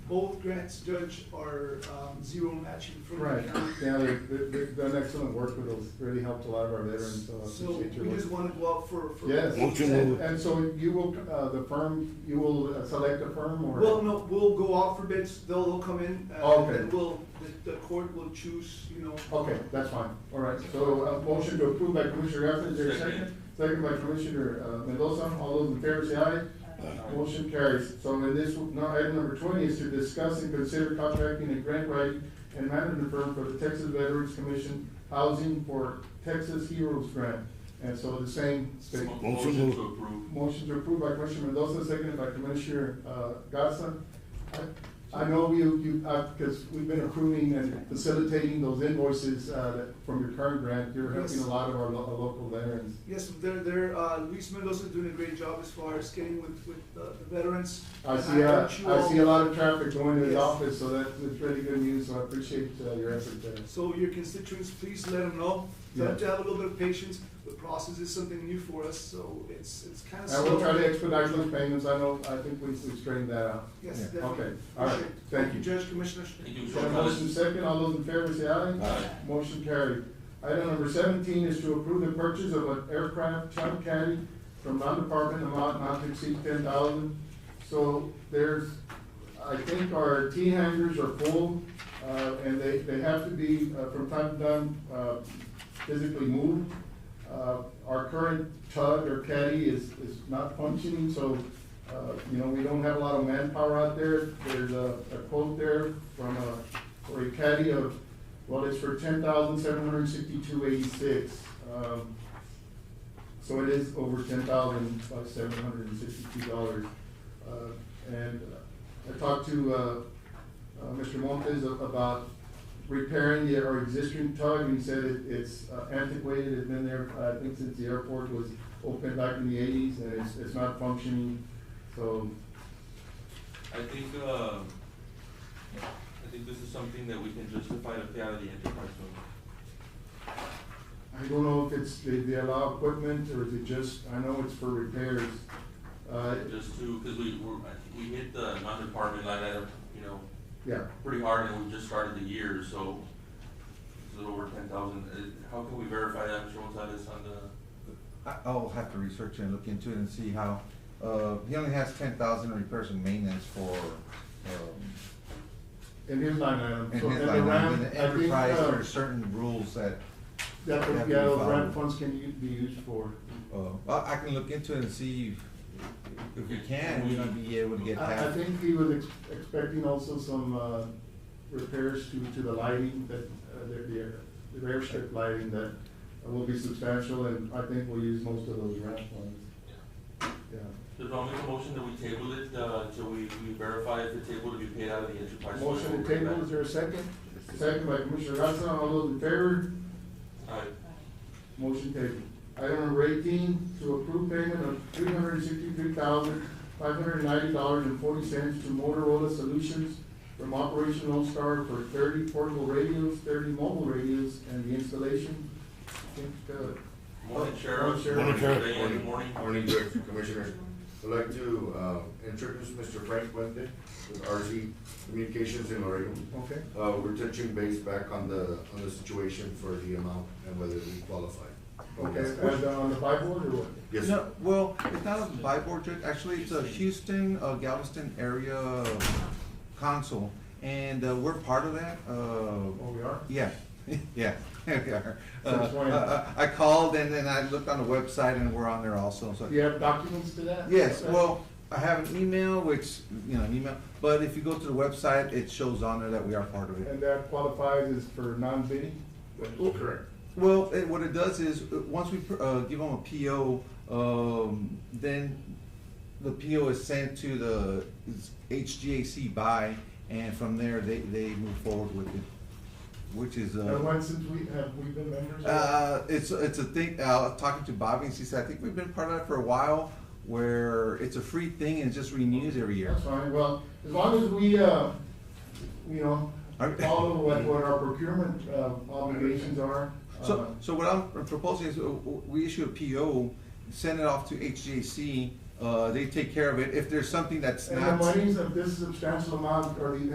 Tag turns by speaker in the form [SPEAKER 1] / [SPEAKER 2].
[SPEAKER 1] both grants, Judge, are um, zero matching from
[SPEAKER 2] Right,
[SPEAKER 1] the county.
[SPEAKER 2] yeah, they've, they've they've done excellent work with us, really helped a lot of our veterans. uh,
[SPEAKER 1] So
[SPEAKER 2] appreciate your
[SPEAKER 1] we
[SPEAKER 2] work.
[SPEAKER 1] just want to go out for. for-
[SPEAKER 2] Yes.
[SPEAKER 3] Motion to
[SPEAKER 2] and-
[SPEAKER 3] move.
[SPEAKER 2] And so you will, uh, the firm, you will uh, select a firm or?
[SPEAKER 1] Well, no, we'll go out for bids, they'll they'll come in, uh, and
[SPEAKER 2] Oh, Okay.
[SPEAKER 1] then we'll, the- the court will choose, you know.
[SPEAKER 2] Okay, that's fine, all right, so a motion to approve by Commissioner Garcia, is there a second? Second by Commissioner uh, Mendoza, all those in favor say aye. Motion carries, so in this, now item number twenty is to discuss and consider contracting a grant writing and management firm for the Texas Veterans Commission Housing for Texas Heroes Grant, and so the same.
[SPEAKER 4] Mo-
[SPEAKER 2] state-
[SPEAKER 4] Motion to approve.
[SPEAKER 2] Motion to approve by Commissioner Mendoza, seconded by Commissioner uh, Garza. I- I know you, you, because we've been approving and facilitating those invoices uh, that- from your current grant. You're helping a lot of our lo- our local veterans.
[SPEAKER 1] Yes, they're, they're, uh, Luis Mendoza doing a great job as far as getting with, with uh, the veterans.
[SPEAKER 2] I
[SPEAKER 1] And
[SPEAKER 2] see, uh,
[SPEAKER 1] want you
[SPEAKER 2] I
[SPEAKER 1] all-
[SPEAKER 2] see a lot of traffic going to his
[SPEAKER 1] Yes.
[SPEAKER 2] office, so that's that's really good news, so I appreciate uh, your effort there.
[SPEAKER 1] So your constituents, please let them know, tell them to
[SPEAKER 2] Yeah.
[SPEAKER 1] have a little bit of patience, the process is something new for us, so it's, it's kind of
[SPEAKER 2] I
[SPEAKER 1] slow.
[SPEAKER 2] will try to expedite those payments. I know, I think we we straightened that out.
[SPEAKER 1] Yes,
[SPEAKER 2] Yeah.
[SPEAKER 1] definitely.
[SPEAKER 2] Okay, all right,
[SPEAKER 1] Appreciate it.
[SPEAKER 2] thank you.
[SPEAKER 1] Judge, Commissioners.
[SPEAKER 4] Thank you.
[SPEAKER 2] Got a motion second, all those in favor say aye.
[SPEAKER 3] Aye.
[SPEAKER 2] Motion carried. Item number seventeen is to approve the purchase of an aircraft chunk caddy from non-department amount not to exceed ten thousand. So there's, I think our T hangers are full, uh, and they, they have to be, uh, from time to time, uh, physically moved. Uh, our current tug or caddy is, is not functioning, so, uh, you know, we don't have a lot of manpower out there. There's a, a quote there from a, for a caddy of, well, it's for ten thousand seven hundred sixty-two eighty-six. Um, so it is over ten thousand, like seven hundred and sixty-two dollars. Uh, and uh, I talked to, uh, uh, Mr. Montes a- about repairing the, our existing tug, and he said it, it's uh, antiquated, it's been there, I think since the airport was opened back in the eighties, and it's, it's not functioning, so,
[SPEAKER 4] I think, uh, I think this is something that we can justify to pay out of the enterprise fund.
[SPEAKER 2] I don't know if it's, they, they allow equipment, or is it just, I know it's for repairs. Uh,
[SPEAKER 4] Just to, because we, were I think we hit the non-department line item, you know,
[SPEAKER 2] yeah,
[SPEAKER 4] pretty hard and we just started the year, so it's a little over ten thousand. Uh, How can we verify that, Mr. Gonzalez, on the,
[SPEAKER 5] I- I'll have to research and look into it and see how, uh, he only has ten thousand repairs and maintenance for, um,
[SPEAKER 2] in his line item.
[SPEAKER 5] in
[SPEAKER 2] So,
[SPEAKER 5] his
[SPEAKER 2] the
[SPEAKER 5] line,
[SPEAKER 2] RAM, I
[SPEAKER 5] item, in the
[SPEAKER 2] think,
[SPEAKER 5] enterprise,
[SPEAKER 2] uh,
[SPEAKER 5] there are certain rules that,
[SPEAKER 2] That,
[SPEAKER 5] Have to be
[SPEAKER 2] yeah, those
[SPEAKER 5] followed.
[SPEAKER 2] grant funds can u- be used for.
[SPEAKER 5] uh, well, I can look into it and see if- if we can, we might be able to get
[SPEAKER 2] I, I
[SPEAKER 5] that.
[SPEAKER 2] think he was ex- expecting also some, uh, repairs to, to the lighting that, uh, the, the, air- the airstrip lighting that will be substantial and I think we'll use most of those grant funds, yeah.
[SPEAKER 4] Does I'll make a motion that we table it, uh, till we, we verify if it's able to be paid out of the enterprise fund.
[SPEAKER 2] Motion to table, is there a second? Second by Commissioner Garza, all those in favor?
[SPEAKER 4] All right.
[SPEAKER 2] Motion taken. Item number eighteen, to approve payment of three hundred sixty-three thousand, five hundred ninety dollars and forty cents to Motorola Solutions from Operation All Star for thirty portable radios, thirty mobile radios, and the installation. I think, uh,
[SPEAKER 4] Morning, Sheriff.
[SPEAKER 2] Morning,
[SPEAKER 3] Sheriff.
[SPEAKER 4] Diane, good morning.
[SPEAKER 6] Morning, Judge and Commissioners. I'd like to uh, introduce Mr. Frank Fuente with RZ Communications in Laredo.
[SPEAKER 2] Okay.
[SPEAKER 6] Uh, We're touching base back on the, on the situation for the amount and whether we qualify.
[SPEAKER 2] Okay, and uh, on the whiteboard or what?
[SPEAKER 6] Yes, sir.
[SPEAKER 5] No, well, it's not a Biboard, Judge. actually, it's a Houston, uh, Galveston area council, and, uh, we're part of that, uh,
[SPEAKER 2] Oh, we are?
[SPEAKER 5] Yeah, yeah, we are. Uh,
[SPEAKER 2] Since when?
[SPEAKER 5] I- I I called and then I looked on the website and we're on there also, so.
[SPEAKER 2] Do you have documents to that?
[SPEAKER 5] Yes, well, I have an email, which, you know, an email, but if you go to the website, it shows on there that we are part of it.
[SPEAKER 2] And that qualifies as for non-bidding?
[SPEAKER 6] Correct.
[SPEAKER 5] Well, it- what it does is, uh, once we pr- uh, give them a PO, um, then the PO is sent to the HGAC by, and from there, they, they move forward with it, which is. uh,
[SPEAKER 2] And when since we, have we been members? of that?
[SPEAKER 5] Uh, it's it's a thing. Uh, talking to Bobby, and she said, I think we've been part of that for a while, where it's a free thing and it just renews every year.
[SPEAKER 2] That's fine, well, as long as we, uh, you know,
[SPEAKER 5] Are-
[SPEAKER 2] follow what, what our procurement, uh, obligations are. uh,
[SPEAKER 5] So so what I'm proposing is uh, we issue a PO, send it off to HJC. uh, they take care of it. If there's something that's
[SPEAKER 2] And the
[SPEAKER 5] not.
[SPEAKER 2] Uh, monies of this substantial amount are the